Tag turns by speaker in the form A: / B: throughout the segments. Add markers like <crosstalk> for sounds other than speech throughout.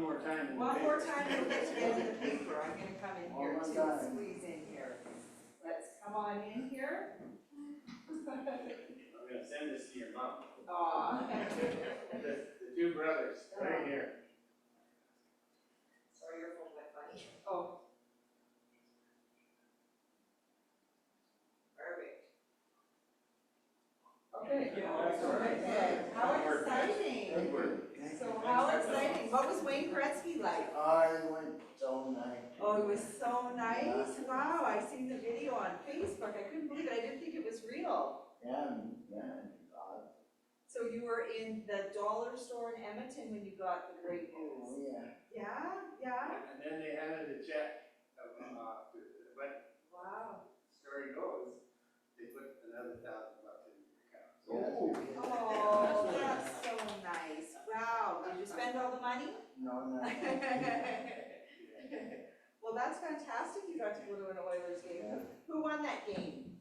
A: more time in the
B: One more time,
A: paper.
B: we'll get you guys in the paper, I'm gonna come in here
A: One more
B: to
A: time.
B: squeeze in here. Let's come on in here.
A: I'm gonna send this to your mom. <laughs>
B: Aw.
A: The, the two brothers, right here.
B: Sorry, your phone went funny. Oh. Perfect. Okay.
A: that's all right.
B: Perfect. How
A: Homework.
B: exciting. So how exciting. What was Wayne Gretzky like?
C: I went all night.
B: Oh, it was so nice. Wow, I seen the video on Facebook. I couldn't believe it. I didn't think it was real.
C: Yeah, yeah, God,
B: So you were in the dollar store in Edmonton when you got the great news?
C: oh, yeah.
B: Yeah,
A: And
B: yeah.
A: then they handed a check, um, uh, to- but
B: Wow.
A: story goes, they put another thousand bucks in your account. So that's
C: Oh.
A: good.
B: Oh, that's so nice. Wow, did you spend all the money? <laughs>
C: No, no.
B: Well, that's fantastic, you got to go to an Oilers game. Who- Who won that game?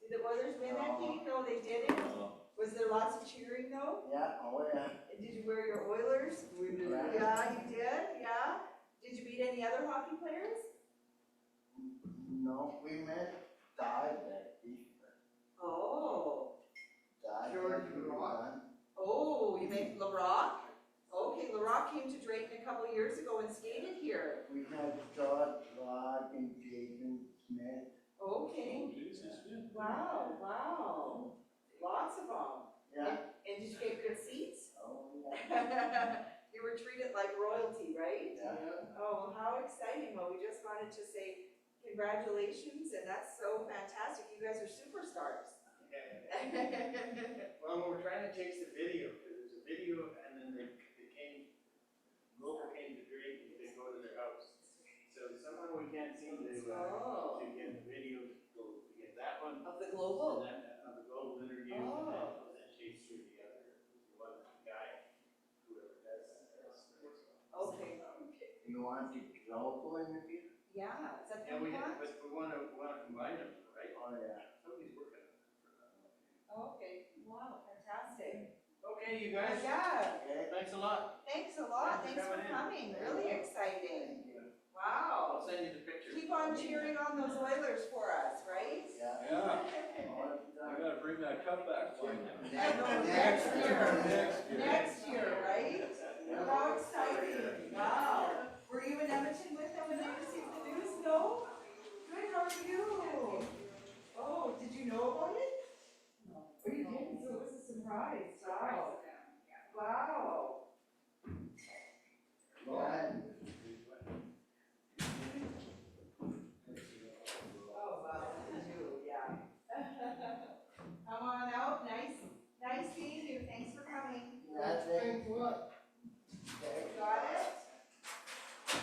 B: Did the Oilers win that game? No, they didn't. Was there lots of cheering though?
C: Yeah, oh, yeah.
B: And Did you wear your Oilers?
C: We did.
B: Yeah, you did, yeah. Did you beat any other hockey players?
C: No, we met died that day,
B: Oh,
C: died.
A: George Rock.
B: oh, you made LaRock? Okay, LaRock came to Drayton a couple years ago and skated here.
C: We had George Rock and Jason Smith.
B: Okay, wow, wow. Lots of them.
C: Yeah,
B: And did you get good seats? <laughs>
C: oh, yeah.
B: You were treated like royalty, right?
C: Yeah.
B: Oh, well, how exciting. Well, we just wanted to say congratulations and that's so fantastic. You guys are superstars.
A: Yeah. Well, we we're trying to chase the video, 'cause there's a video, and then they, they came, Rover came to drink, and they go to their house. So somehow we can't
B: <laughs>
A: seem to, uh,
B: Oh,
A: to get the video, go, to get that one,
B: of
A: and
B: the global.
A: then uh, the gold interview, and then,
B: Oh.
A: and then chase through the other, the one guy, whoever does that.
B: Okay.
C: You want to global interview?
B: Yeah, is that the
A: And we,
B: one?
A: but we wanna, wanna combine them, right?
C: Oh, yeah.
A: Somebody's working on it.
B: Oh, Okay, wow, fantastic.
A: Okay, you guys,
B: Yeah,
C: Okay.
A: thanks a lot.
B: thanks a lot.
A: Thanks
B: Thanks
A: for
B: for coming.
A: coming
B: Really exciting. Wow.
A: I'll send you the picture.
B: Keep on cheering on those Oilers for us, right?
C: Yeah.
D: Yeah,
C: All the
D: I
C: time.
D: gotta bring that cup back for
B: I know, next year. Next year, right?
C: Yeah.
B: How exciting, wow. Were you in Edmonton with them when they received the news? No? Good, how are you? Oh, did you know about it? Oh, you didn't, so it was a surprise, wow. Wow.
C: Yeah.
B: Oh, wow, you do, yeah. <laughs> Come on out, nice, nice seeing you, thanks for coming.
C: That's it. Okay.
B: Got it?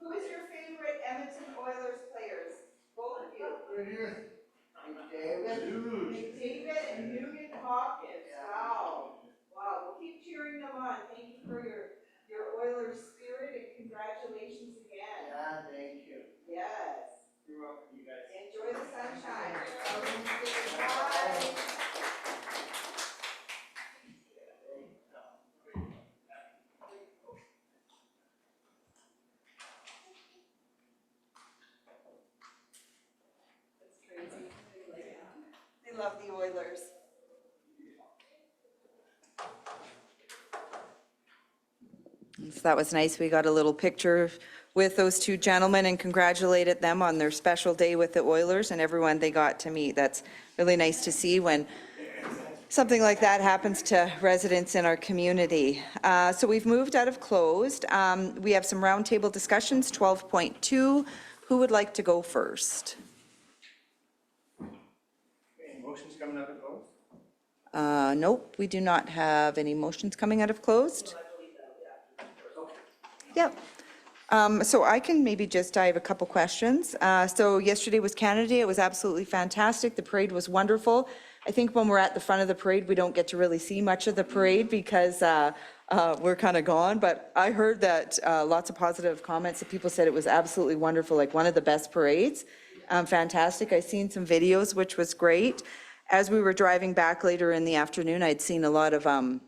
B: Who is your favorite Edmonton Oilers players? Both of you.
C: David.
B: McDavid and Nugent Hopkins, wow. Wow, we'll keep cheering them on. Thank you for your, your Oilers spirit and congratulations again.
C: Yeah, thank you.
B: Yes,
A: You're welcome, you guys.
B: enjoy the sunshine. Bye. That's crazy. They love the Oilers.
E: So that was nice. We got a little picture with those two gentlemen and congratulated them on their special day with the Oilers and everyone they got to meet. That's really nice to see when something like that happens to residents in our community. Uh, So we've moved out of closed. Um, We have some roundtable discussions, 12.2. Who would like to go first?
A: Okay, motion's coming up at both?
E: Uh, Nope, we do not have any motions coming out of closed. Yep. Um, So I can maybe just, I have a couple questions. Uh, So yesterday was Canada Day, it was absolutely fantastic, the parade was wonderful. I think when we're at the front of the parade, we don't get to really see much of the parade because uh, uh, we're kind of gone, but I heard that uh, lots of positive comments, that people said it was absolutely wonderful, like one of the best parades. Um, Fantastic, I seen some videos, which was great. As we were driving back later in the afternoon, I'd seen a lot of um,